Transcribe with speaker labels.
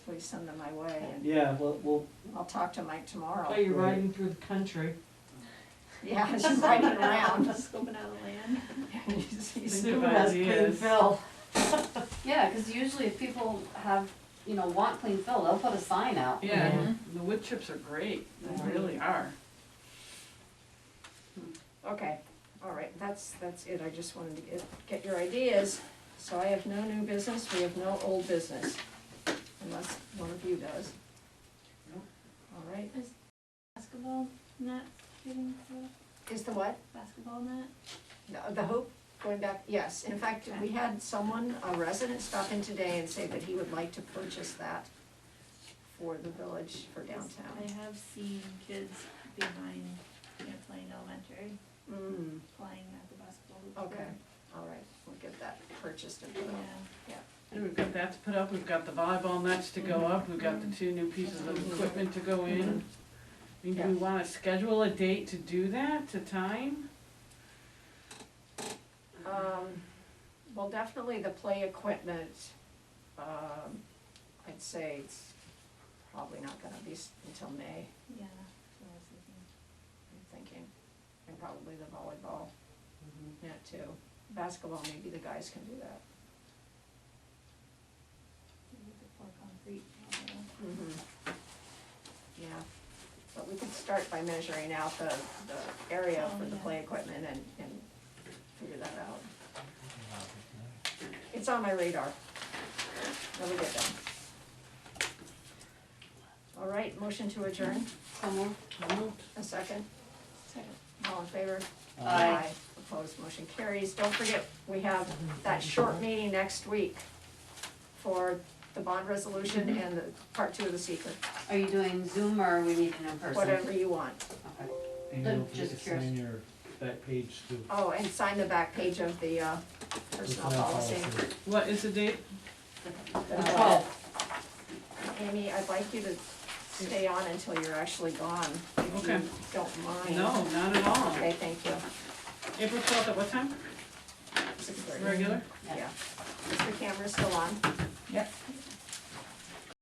Speaker 1: please send them my way, and
Speaker 2: Yeah, well, well,
Speaker 1: I'll talk to Mike
Speaker 3: Oh,
Speaker 1: tomorrow.
Speaker 3: you're
Speaker 2: Right.
Speaker 3: riding through the country.
Speaker 1: Yeah, he's riding around.
Speaker 4: Scoping out the land.
Speaker 1: He's- he's-
Speaker 3: Think Sue about has it, clean yes. fill.
Speaker 5: Yeah, because usually if people have, you know, want clean fill, they'll put a sign out.
Speaker 3: Yeah.
Speaker 4: Yeah, the wood chips are great,
Speaker 2: Mm-hmm.
Speaker 4: they really are.
Speaker 1: Okay, all right, that's, that's it, I just wanted to get, get your ideas. So I have no new business, we have no old business, unless one of you does.
Speaker 4: Nope.
Speaker 1: All right,
Speaker 4: Basketball net, getting the
Speaker 1: is the what?
Speaker 4: basketball net?
Speaker 1: No, The hoop, going back, yes, in fact, we had someone, a resident, stop in today and say that he would like to purchase that for the village, for downtown.
Speaker 6: I have seen kids behind, you know, playing elementary,
Speaker 1: Mm,
Speaker 6: playing at the basketball hoop.
Speaker 1: okay, all right, we'll get that purchased and put
Speaker 6: Yeah,
Speaker 1: up.
Speaker 4: And we've got that to put up, we've got the volleyball nets to go
Speaker 2: Mm-hmm.
Speaker 4: up, we've got the two new pieces of equipment to go in. I mean, do we wanna schedule a date to do that, to time?
Speaker 1: Um, well, definitely the play equipment, um, I'd say it's probably not gonna be s- until May,
Speaker 6: yeah, that's what I was thinking.
Speaker 1: I'm thinking. And probably the volleyball net too. Basketball, maybe the guys can do that.
Speaker 6: Maybe the pour concrete, I don't know.
Speaker 1: Mm-hmm. Yeah, but we could start by measuring out the, the area for the play equipment and, and figure that out. It's on my radar. Let me get done. All right, motion to adjourn,
Speaker 5: Somewhere.
Speaker 1: a second? Second. All in favor?
Speaker 5: Aye.
Speaker 1: Opposed, motion carries. Don't forget, we have that short meeting next week for the bond resolution and the part two of the secret,
Speaker 5: Are you doing Zoom or are we meeting in person?
Speaker 1: whatever you want.
Speaker 5: Okay.
Speaker 2: and
Speaker 5: I'm
Speaker 2: don't forget
Speaker 5: just
Speaker 2: to sign your back page to
Speaker 1: Oh, and sign the back page of the uh,
Speaker 2: the
Speaker 1: personnel
Speaker 2: file
Speaker 1: policy.
Speaker 2: policy.
Speaker 4: What is the date?
Speaker 5: The
Speaker 1: Uh,
Speaker 5: 12th.
Speaker 1: Amy, I'd like you to stay on until you're actually gone, if
Speaker 4: Okay.
Speaker 1: you don't
Speaker 2: Mm-hmm.
Speaker 1: mind.
Speaker 4: No, not at all.
Speaker 1: Okay, thank you.
Speaker 4: April twelfth at what time?
Speaker 1: Six thirty.
Speaker 4: Regular?
Speaker 1: Yeah. Is the camera still on?
Speaker 4: Yep.